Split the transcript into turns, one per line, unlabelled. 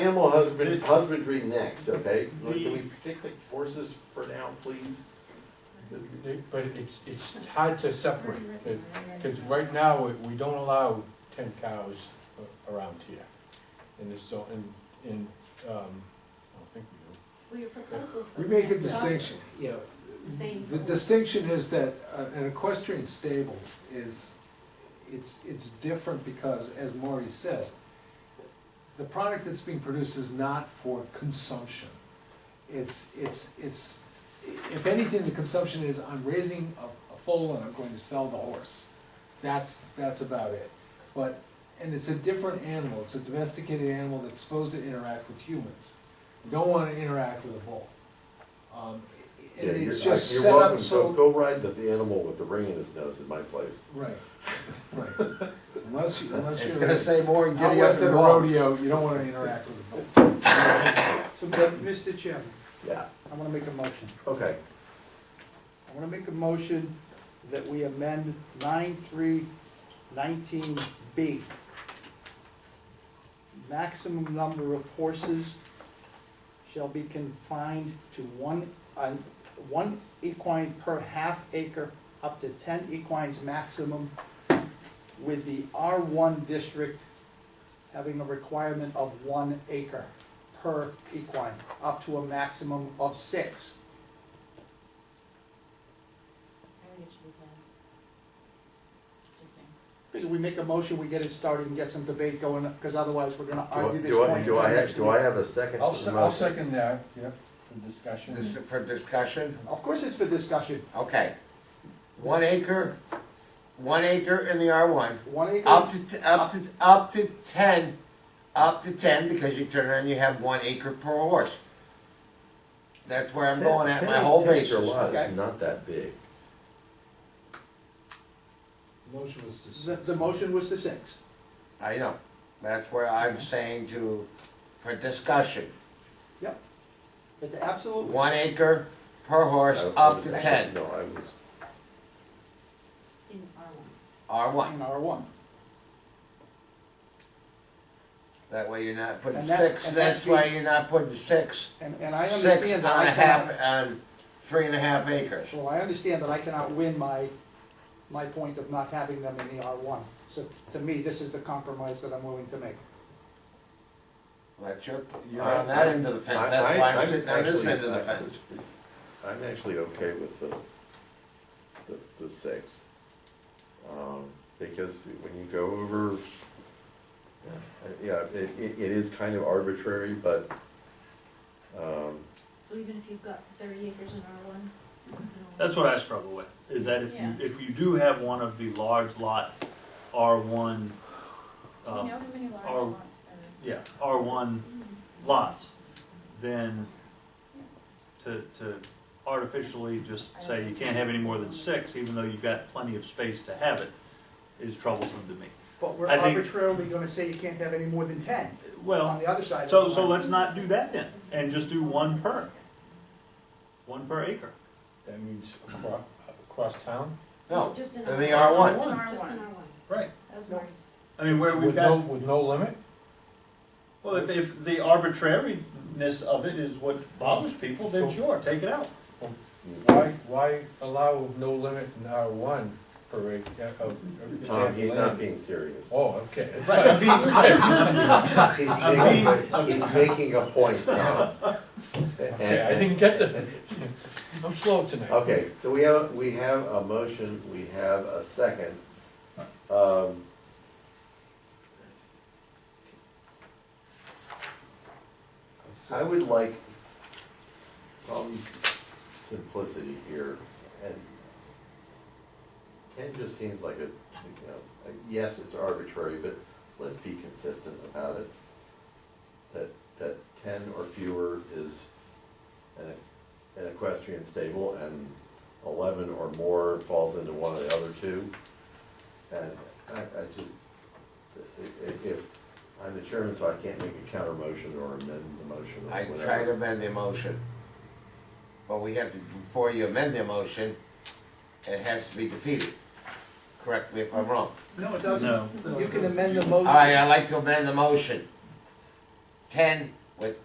Animal husband, husbandry next, okay? Can we
The-
stick the horses for now, please?
But it's, it's hard to separate, because right now, we- we don't allow ten cows a- around here. In this zone, in, in, um, I don't think we do.
Well, your proposal for
We make a
that stuff
distinction, you know,
is The same.
the distinction is that uh, an equestrian stable is, it's, it's different because, as Maury says, the product that's being produced is not for consumption. It's, it's, it's, if anything, the consumption is, I'm raising a, a foal and I'm going to sell the horse. That's, that's about it. But, and it's a different animal, it's a domesticated animal that's supposed to interact with humans. You don't wanna interact with a bull. Um, and
Yeah,
it's
you're-
just
you're
set up
welcome.
so.
Go ride the, the animal with the ring in his nose in my place.
Right, right. Unless you, unless
It's
you're
gonna say more and
out
giddy up
west at
and
a
roll.
rodeo, you don't wanna interact with a bull.
So, but, Mr. Chairman,
Yeah,
I wanna make a motion.
okay.
I wanna make a motion that we amend nine three nineteen B. Maximum number of horses shall be confined to one, uh, one equine per half acre, up to ten equines maximum, with the R one district having a requirement of one acre per equine, up to a maximum of six.
I think it should be done. Just saying.
Figure we make a motion, we get it started and get some debate going, because otherwise we're gonna
Do I-
argue this
do I-
point
Do
until
I, have-
next
do I
week.
have a second?
I'll,
to the
se- I'll
motion?
second that, yep, for discussion.
This is for discussion,
Of course it's for discussion,
okay. One acre, one acre in the R one,
one
up
acre,
to, t- up to, up to ten, up to ten, because you turn around, you have one acre per horse. That's where I'm going at, my
Ten-
whole
ten acre
basis,
lot is
okay?
not that big.
Motion was to.
the, the motion was to six.
I know, that's where I'm saying to, for discussion,
Yep. It's absolutely,
one acre per horse,
I- I
up
was-
to ten,
No, I was,
In R one.
R
in
one.
R one.
That way you're not putting
And that-
six,
and
that's
that
why
means-
you're not putting six
And, and I
six
understand
on
that I
a
cannot,
half, on three and a half acres.
well, I understand that I cannot win my, my point of not having them in the R one. So to me, this is the compromise that I'm willing to make.
That's your, you're
I-
on that end of
I-
the fence, that's why
I-
I'm sitting on this
actually-
end of the
I-
fence.
I'm actually okay with the, the, the six. Um, because when you go over, yeah, it, it, it is kind of arbitrary, but, um,
So even if you've got thirty acres in R one? you know,
That's what I struggle with, is that if
Yeah.
you, if you do have one of the large lot R one,
Do we
um,
know how many large
R-
lots are?
yeah, R one lots, then to, to artificially just say you can't have any more than six, even though you've got plenty of space to have it, is troublesome to me.
But we're
I think-
arbitrarily gonna say you can't have any more than ten on
Well,
the other side of the
so,
line.
so let's not do that then, and just do one per, one per acre.
That means across, across town,
No,
Just in
in the
R one.
R1.
Just in R one.
Right.
That was
No.
Marty's.
I mean, where we've
with no,
got,
with no limit?
well, if, if the arbitrariness of it is what bothers people, then
So-
sure, take it out.
Why, why allow no limit in R one uh, per acre of? of-
Tom, um, he's not being serious.
Oh, okay.
He's
I'm
making, he's making a point, Tom.
Okay, I didn't get the, I'm slow tonight.
Okay, so we have, we have a motion, we have a second. Um, I would like s- s- some simplicity here, and ten just seems like a, you know, a- yes, it's arbitrary, but let's be consistent about it. That, that ten or fewer is an an equestrian stable, and eleven or more falls into one of the other two. And I, I just, i- i- if, I'm the chairman, so I can't make a counter motion or amend the motion or
I
whatever.
try to amend the motion. But we have to, before you amend the motion, it has to be defeated. Correct me if I'm wrong.
No, it doesn't.
No.
You can amend the motion.
All right, I'd like to amend the motion ten with